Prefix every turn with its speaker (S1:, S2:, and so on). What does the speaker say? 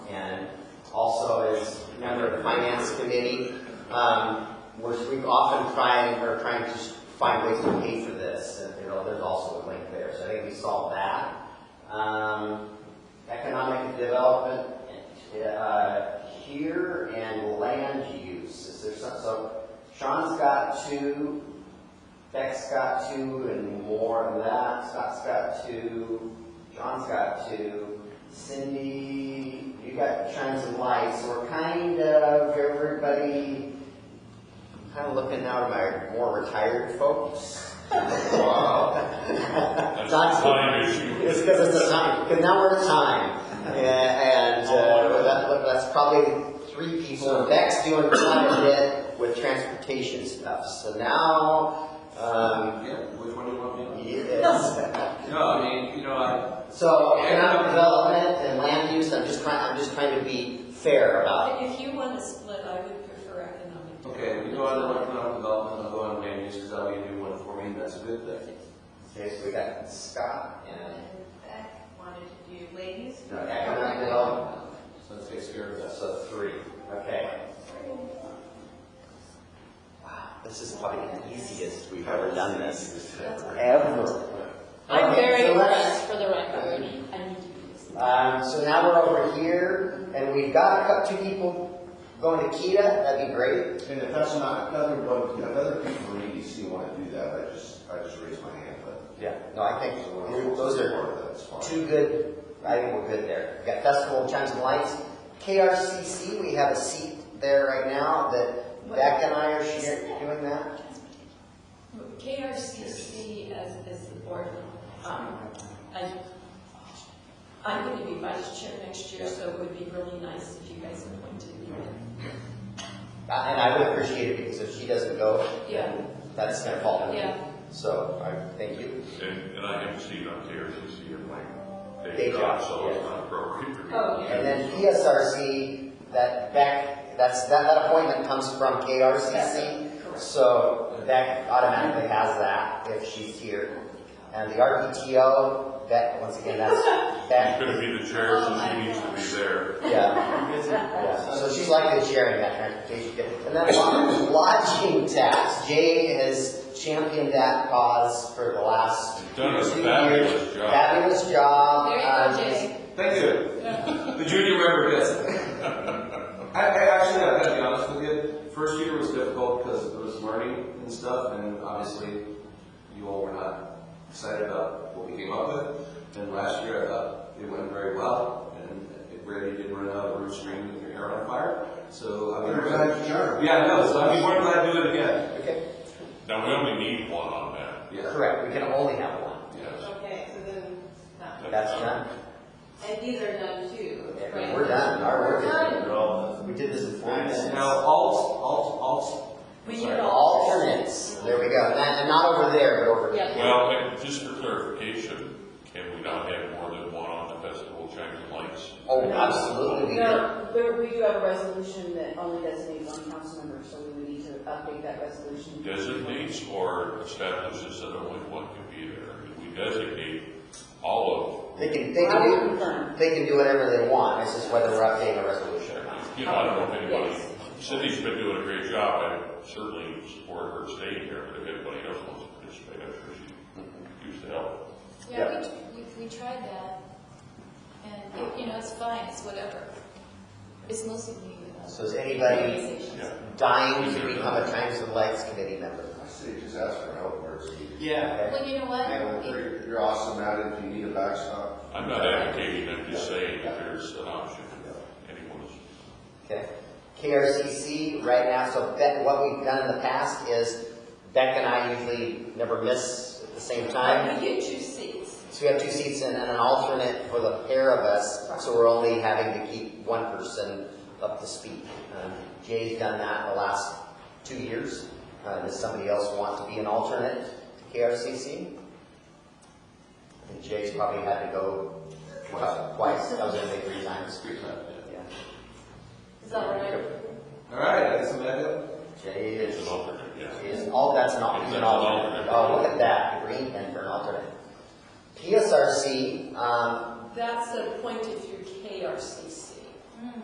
S1: our finance committee, um, which we often try and we're trying to find ways to pay for this, and, you know, there's also a link there, so I think we solved that. Um, economic development, uh, here and land use, is there some, so Sean's got two, Beck's got two and more than that, Scott's got two, John's got two, Cindy, you got shines and lights, so we're kind of, everybody, kind of looking now at my more retired folks. Wow.
S2: That's a time issue.
S1: It's because it's a time, because now we're at time, and, uh, that, that's probably three people, Beck's doing quite a bit with transportation stuff, so now, um,
S3: Yeah, which one do you want me on?
S1: yes.
S3: No, I mean, you know, I,
S1: So economic development and land use, I'm just trying, I'm just trying to be fair about it.
S4: If you want to split, I would prefer economic.
S3: okay, we go on to economic development, I'll go on to land use, because that'll be a new one for me, that's a good thing.
S1: Okay, so we got Scott and
S5: Beck wanted to do ladies.
S1: No, economic development.
S3: So that takes care of that.
S1: So three, okay. Wow, this is probably the easiest we've ever done this. Ever.
S6: I'm
S1: Okay,
S6: very
S1: so let's-
S6: impressed for the record. I need to do this.
S1: Um, so now we're over here, and we've got a couple, two people going to Kita, that'd be great.
S7: And if that's not, another one, if other people E from EDC want to do that, I just, I just raise my hand, but.
S1: Yeah. No, I think
S7: we're-
S1: those are
S7: Part of that's fine.
S1: two good, I think we're good there. We've got Festival of Chimes and Lights, KRCC, we have a seat there right now that Beck and I are sharing, doing that.
S4: KRCC as, as the board, um, I, I'm going to be vice chair next year, so it would be really nice if you guys appointed me.
S1: Uh, And I would appreciate it, because if she doesn't go,
S4: Yeah.
S1: then that's gonna fall on me.
S4: Yeah.
S1: So, I, thank you.
S2: And, and I haven't seen on KRCC in like
S1: Day
S2: day
S1: job,
S2: job, so
S1: yeah.
S2: it's not appropriate for me.
S4: Oh,
S1: And then PSRC, that Beck, that's, that, that appointment comes from KRCC.
S4: Correct.
S1: So Beck automatically has that if she's here. And the RPTO, Beck, once again, that's
S2: She's
S1: Beck,
S2: gonna be the chair, so she needs to be there.
S1: yeah. yeah. So she's likely sharing that transportation. bit. And then lo- lodging tax, Jay has championed that cause for the last
S2: She's
S1: two
S2: Done a
S1: years.
S2: fabulous job.
S1: Fabulous job.
S4: There you
S1: Um,
S4: go, Jay.
S3: Thank you. The junior member gets it. I, I actually, I've got to be honest with you, first year was difficult because it was learning and stuff, and obviously, you all were not excited about what we came up with. And last year, I thought it went very well, and it really did run out of root string with your hair on fire, so. I'm
S7: We're glad you are.
S3: Yeah, I know, so I'm more glad to do it again.
S1: Okay,
S2: Now, we only need one on that,
S3: Yeah,
S1: correct, we can only have one.
S2: yes.
S5: Okay, so then,
S4: uh,
S5: no.
S1: That's done.
S5: And these are done too,
S1: Yeah,
S5: right?
S1: We're done, our work is
S4: Done.
S1: done. We did this in four minutes.
S3: Now, alt, alt, alt,
S4: We need
S3: Sorry.
S1: Alternates, there we go, and that- and not over there, but over here.
S6: Yeah.
S2: Well, and just for clarification, can we not have more than one on the festival Chimes and Lights?
S1: Oh, absolutely, we could.
S8: No, there, we do have a resolution that only designates one council member, so we would need to update that resolution.
S2: Designates or establishes that only one can be there? We designate all
S1: They can, they
S8: I will
S1: can do,
S8: confirm.
S1: they can do whatever they want, it's just whether we're updating a resolution or not.
S2: of, you know, I don't know if anybody,
S8: Yes.
S2: Cindy's been doing a great job, I certainly support her staying here, but if anybody else wants to participate, I'm sure she'd use the help.
S1: Yeah.
S6: Yeah, we, we- we tried that, and, it- you know, it's fine, it's whatever. It's mostly me. uh,
S1: So is anybody
S6: organizations.
S2: Yeah.
S1: dying to become a Times and Lights committee member?
S7: I say just ask for help where it's needed.
S3: yeah.
S1: Okay.
S6: Well, you know
S7: And
S6: what?
S7: you're, you're awesome at it, if you need a backstop.
S2: I'm not advocating, I'm just saying that there's uh, an option, if anyone is
S1: Okay. KRCC, right now, so Beck, what we've done in the past is Beck and I usually never miss at the same time.
S4: But we get two seats.
S1: So we have two seats and and an alternate for the pair of us, so we're only having to keep one person up to speed. Um, Jay's done that the last two years. Uh, Does somebody else want to be an alternate to KRCC? I think Jay's probably had to go twice, twice, I was gonna say three times.
S3: Three times, yeah.
S1: Yeah.
S4: Is that right?
S3: All right, I guess I'm at it.
S1: Jay is,
S2: an alternate, yeah.
S1: is, all, that's not, he's an alternate. Oh, look at that, green and for an alternate. PSRC, um,
S4: That's
S8: Hmm.